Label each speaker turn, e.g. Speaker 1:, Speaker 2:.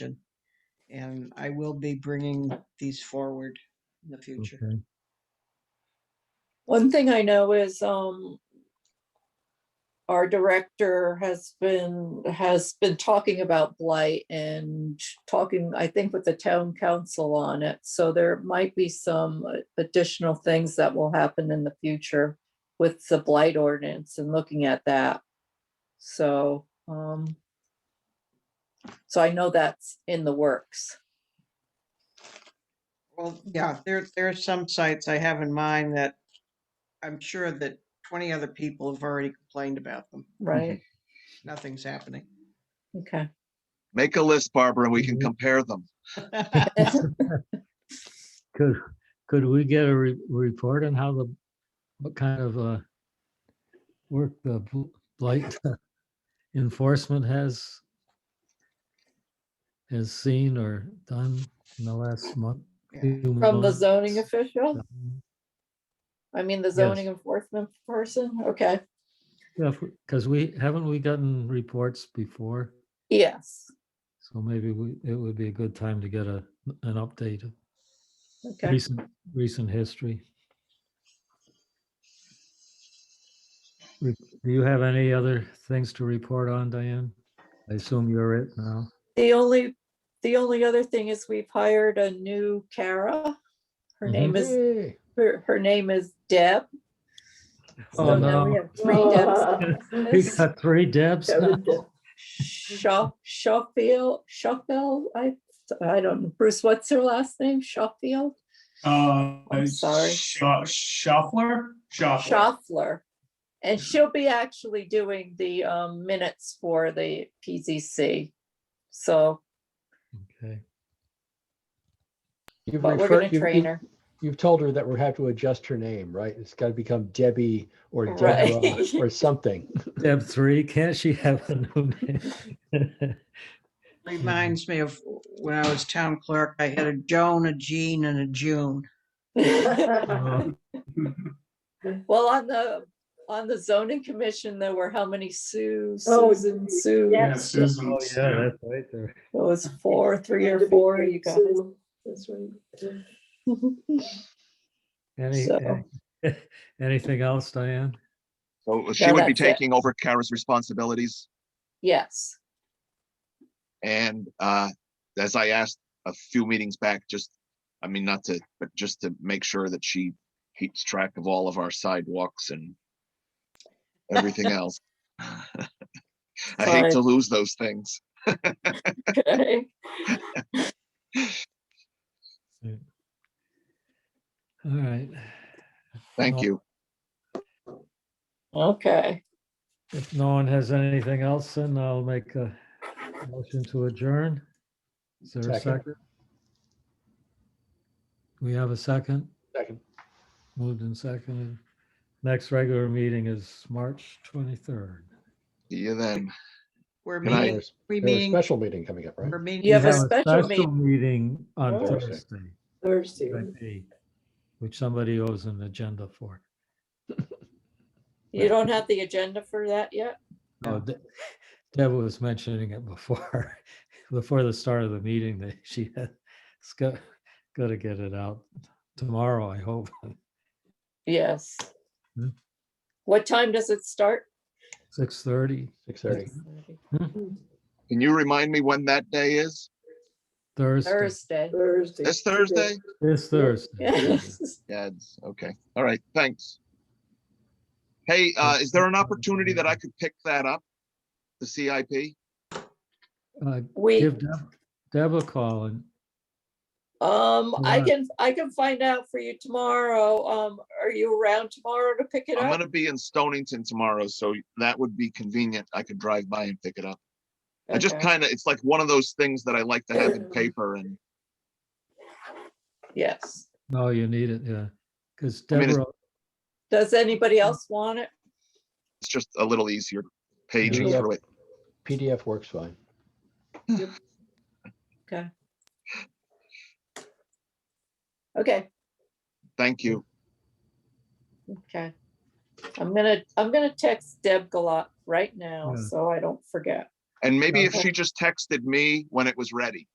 Speaker 1: action. And I will be bringing these forward in the future.
Speaker 2: Okay.
Speaker 3: One thing I know is, um, our director has been, has been talking about blight and talking, I think, with the town council on it. So there might be some additional things that will happen in the future with the blight ordinance and looking at that. So, um, so I know that's in the works.
Speaker 1: Well, yeah, there, there are some sites I have in mind that I'm sure that 20 other people have already complained about them.
Speaker 3: Right,
Speaker 1: Nothing's happening.
Speaker 3: okay.
Speaker 4: Make a list, Barbara, and we can
Speaker 2: Mhm.
Speaker 3: Mm-hmm.
Speaker 4: compare them.
Speaker 2: Could, could we get a re- report on how the, what kind of, uh, work the bl- blight enforcement has has seen or done in the last month?
Speaker 1: Yeah.
Speaker 2: few
Speaker 3: From the
Speaker 2: months?
Speaker 3: zoning official, I mean, the zoning enforcement person, okay,
Speaker 2: Yeah, because we, haven't we gotten reports before?
Speaker 3: yes,
Speaker 2: So maybe we, it would be a good time to get a, an update of
Speaker 3: okay.
Speaker 2: recent, recent history. Re- Do you have any other things to report on, Diane? I assume you're it now.
Speaker 3: The only, the only other thing is we've hired a new Kara.
Speaker 2: Mm-hmm.
Speaker 3: Her name is, her, her name is Deb.
Speaker 2: Oh,
Speaker 3: So now we
Speaker 2: no.
Speaker 3: have three Debs.
Speaker 2: We
Speaker 3: This-
Speaker 2: got three Debs now.
Speaker 3: Shaw, Shawfield, Shawfield, I, I don't, know. Bruce, what's her last name? Shawfield?
Speaker 5: Uh,
Speaker 3: I'm sorry.
Speaker 5: Scha- Schaffler? Schaffler.
Speaker 3: Schaffler. And she'll be actually doing the um, minutes for the PZC. So,
Speaker 2: Okay.
Speaker 6: You've
Speaker 3: but we're
Speaker 6: referred-
Speaker 3: gonna
Speaker 6: you've-
Speaker 3: train
Speaker 6: you've-
Speaker 3: her.
Speaker 6: You've told her that we have to adjust her name, right? It's got to become Debbie or
Speaker 3: Right.
Speaker 6: Deborah or something.
Speaker 2: Deb three, can't she have a new name?
Speaker 1: Reminds me of when I was town clerk, I had a Joan, a Jean, and a June.
Speaker 5: Uh-huh.
Speaker 2: Oh,
Speaker 3: Well, on the, on the zoning commission, there were how many Sues,
Speaker 7: Oh,
Speaker 3: Susan, Sue?
Speaker 7: yeah.
Speaker 5: Yeah, Susan.
Speaker 2: Oh, yeah, that's right there.
Speaker 3: It was four, three or four, you guys.
Speaker 7: That's right.
Speaker 2: Any,
Speaker 3: So-
Speaker 2: any- anything else, Diane?
Speaker 4: So she
Speaker 3: Yeah,
Speaker 4: would be
Speaker 3: that's it.
Speaker 4: taking over Kara's responsibilities.
Speaker 3: Yes,
Speaker 4: And uh, as I asked a few meetings back, just, I mean, not to, but just to make sure that she keeps track of all of our sidewalks and everything else. I hate
Speaker 3: Sorry.
Speaker 4: to lose those things.
Speaker 3: okay.
Speaker 2: All right.
Speaker 4: Thank
Speaker 3: Uh-huh.
Speaker 2: Well,
Speaker 4: you.
Speaker 3: Okay,
Speaker 2: If no one has anything else, then I'll make a motion to adjourn. Is there a
Speaker 6: Second.
Speaker 2: second? We have a second,
Speaker 6: Second.
Speaker 2: moved and seconded. Next regular meeting is March 23rd.
Speaker 4: See you then.
Speaker 1: We're
Speaker 4: Good night.
Speaker 1: meeting,
Speaker 6: There's
Speaker 1: we
Speaker 6: there's a
Speaker 1: meeting,
Speaker 6: special meeting coming up, right?
Speaker 1: we're meeting.
Speaker 3: You have a
Speaker 2: We
Speaker 3: special
Speaker 2: Meeting on
Speaker 7: Oh.
Speaker 2: Thursday,
Speaker 7: Thursday.
Speaker 2: I think, which somebody owes an agenda for.
Speaker 3: you don't have the agenda for that yet?
Speaker 2: Oh, De- Deb was mentioning it before, before the start of the meeting that she had, it's got, got to get it out tomorrow, I hope.
Speaker 3: Yes.
Speaker 2: Hmm.
Speaker 3: What time does it start?
Speaker 2: Six thirty,
Speaker 6: Six thirty.
Speaker 4: Can you remind me when that day is?
Speaker 2: Thursday,
Speaker 3: Thursday.
Speaker 7: Thursday.
Speaker 4: This Thursday?
Speaker 2: this Thursday.
Speaker 3: Yes.
Speaker 4: Yeah, it's- okay. All right, thanks. Hey, uh, is there an opportunity that I could pick that up? The CIP?
Speaker 2: Uh,
Speaker 3: We,
Speaker 2: Give Deb- Deb a call and,
Speaker 3: um, I
Speaker 2: Right.
Speaker 3: can, I can find out for you tomorrow. Um, are you around tomorrow to pick it
Speaker 4: I'm
Speaker 3: up?
Speaker 4: gonna be in Stonington tomorrow, so that would be convenient. I could drive by and pick it up. I just
Speaker 3: Okay.
Speaker 4: kind of, it's like one of those things that I like to have in paper and,
Speaker 3: Yes.
Speaker 2: no, oh, you need it, yeah. Because
Speaker 4: I mean, it's-
Speaker 2: Deborah,
Speaker 3: Does anybody else want it?
Speaker 4: it's just a little easier paging
Speaker 6: Yeah.
Speaker 4: through it.
Speaker 6: PDF works fine.
Speaker 3: Okay. Okay,
Speaker 4: Thank you.
Speaker 3: okay. I'm gonna, I'm gonna text Deb Galat right now,
Speaker 2: Yeah.
Speaker 3: so I don't forget.
Speaker 4: And maybe if
Speaker 3: Okay.
Speaker 4: she just texted me when it was ready.